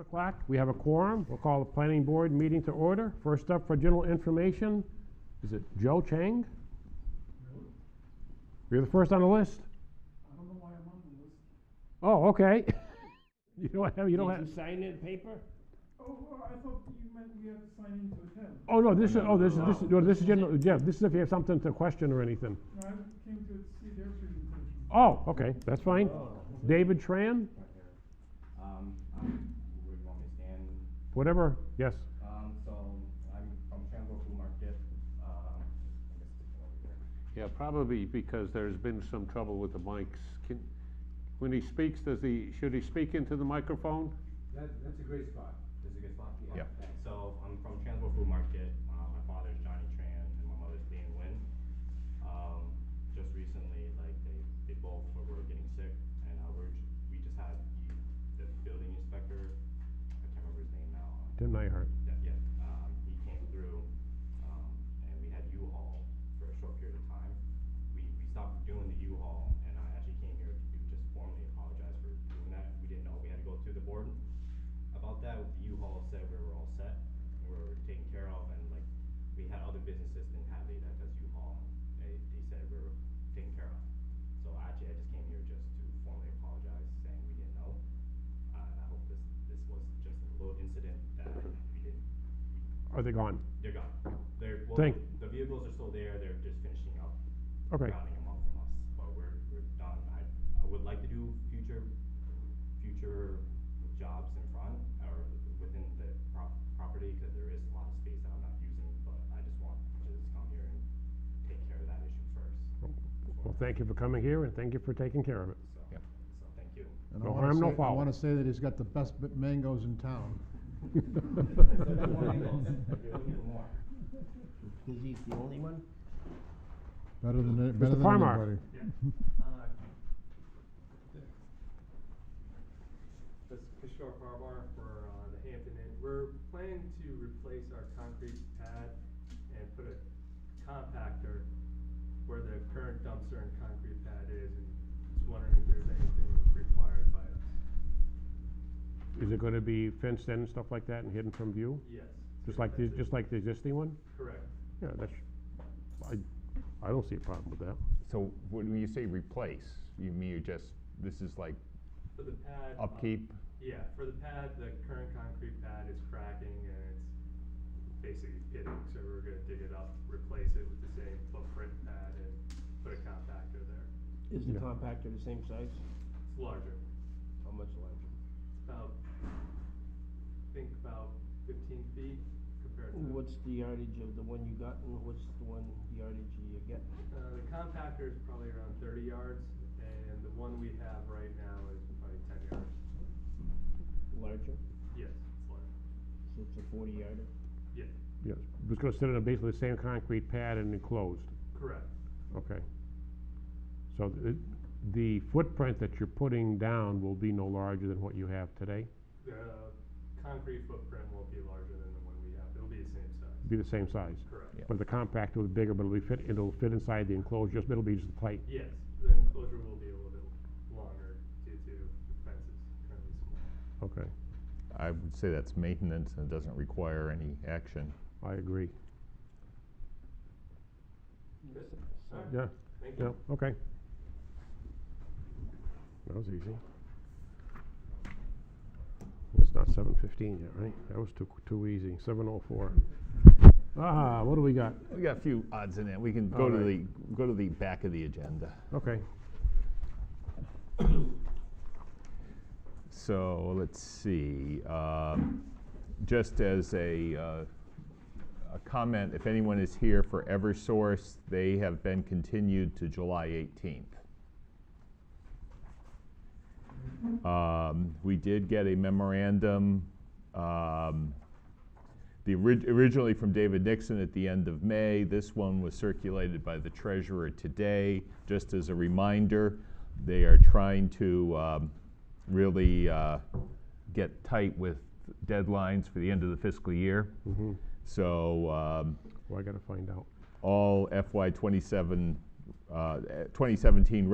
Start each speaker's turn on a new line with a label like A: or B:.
A: o'clock. We have a quorum. We'll call the planning board meeting to order. First up for general information, is it Joe Chang? You're the first on the list?
B: I don't know why I'm on the list.
A: Oh, okay. You don't have, you don't have,
C: Did you sign in paper?
B: Oh, well, I thought you meant we had to sign in to attend.
A: oh, no, this is, oh, this is, this is,
C: No.
A: no, this is general, yeah, this is if you have something to question or anything.
B: No, I came to see their presentation.
A: Oh, okay, that's fine. David Tran,
D: Um, Oh, I'm, where you want me to stand?
A: whatever, yes.
D: Um, so I'm from Chandler Food Market, um, I guess it's over here.
E: Yeah, probably because there's been some trouble with the mics. Can, when he speaks, does he, should he speak into the microphone?
F: That, that's a great spot.
D: This is a good spot?
A: Yeah.
D: Thanks. So I'm from Transworld Food Market. Uh, my father's Johnny Tran and my mother's Dan Nguyen. Um, just recently, like they, they both were, were getting sick, and uh, we're j- we just had the building inspector. I can't remember his name now. uh,
A: Tim Nyheart.
D: that yet. Um, he came through, um, and we had U-Haul for a short period of time. We, we stopped doing the U-Haul, and I actually came here to just formally apologize for doing that. We didn't know we had to go through the board about that. The U-Haul said we were all set, and we were taken care of, and like, we had other businesses in Hadley that does U-Haul, and they, they said we were taken care of. So actually, I just came here just to formally apologize, saying we didn't know. Uh, I hope this, this was just a little incident that we didn't,
A: Are they gone?
D: they're gone. They're, well,
A: Thank-
D: the vehicles are still there, they're just finishing up.
A: Okay.
D: Rounding them up from us, but we're, we're done. I, I would like to do future, future jobs in front or within the prop- property, cause there is a lot of space that I'm not using, but I just want to just come here and take care of that issue first.
A: Well, thank you for coming here and thank you for taking care of it.
D: So, so thank you.
G: And I
A: No
G: wanna
A: harm, no
G: say-
A: foul.
G: I want to say that he's got the best b- mangoes in town.
D: You're looking for more.
C: Cause he's the only one?
G: Better than, any- better than
A: Farmar.
G: anybody.
H: This is Kishore Farbar for uh, the Hampton Inn. We're planning to replace our concrete pad and put a compactor where the current dumpster and concrete pad is, and just wondering if there's anything required by us.
A: Is it gonna be fenced in and stuff like that and hidden from view?
H: Yes.
A: Just like, the-
H: this.
A: just like the existing one?
H: Correct.
A: Yeah, that's, I, I don't see a problem with that.
I: So when you say replace, you mean you just, this is like
H: For the pad. uh,
I: upkeep?
H: Yeah, for the pad, the current concrete pad is cracking and it's basically pitting, so we're gonna dig it up, replace it with the same footprint pad and put a compactor there.
C: Is the
A: Yeah.
C: compactor the same size?
H: It's larger.
C: How much larger?
H: about, uh, think about fifteen feet compared to.
C: What's the yardage of the one you got and what's the one yardage you get?
H: Uh, the compactor is probably around thirty yards, and the one we have right now is probably ten yards.
C: Larger?
H: Yes, it's large,
C: So it's a forty yarder?
H: yeah,
A: Yes, it's gonna sit on basically the same concrete pad and enclosed,
H: correct,
A: okay. So the, the footprint that you're putting down will be no larger than what you have today?
H: the concrete footprint won't be larger than the one we have, it'll be the same size,
A: Be the same size?
H: correct.
A: But the compactor will be bigger, but it'll be fit, it'll fit inside the enclosure, just, it'll be just tight.
H: Yes, the enclosure will be a little bit longer due to the fences currently small.
A: Okay,
I: I would say that's maintenance and doesn't require any action.
A: I agree.
H: Good.
C: So-
A: Yeah,
H: Thank
A: yeah,
H: you.
A: okay. That was easy. It's not seven fifteen yet, right? That was too, too easy, seven oh four. Ah, what do we got?
I: We got a few odds in it. We can go to the,
A: Alright.
I: go to the back of the agenda.
A: Okay,
I: So let's see. um, Just as a, uh, a comment, if anyone is here for Eversource, they have been continued to July 18th. Um, We did get a memorandum, um, the, orig- originally from David Nixon at the end of May. This one was circulated by the treasurer today. Just as a reminder, they are trying to um, really uh, get tight with deadlines for the end of the fiscal year.
A: Mm-hmm.
I: So um,
A: well, I gotta find out.
I: all FY 27, uh, 2017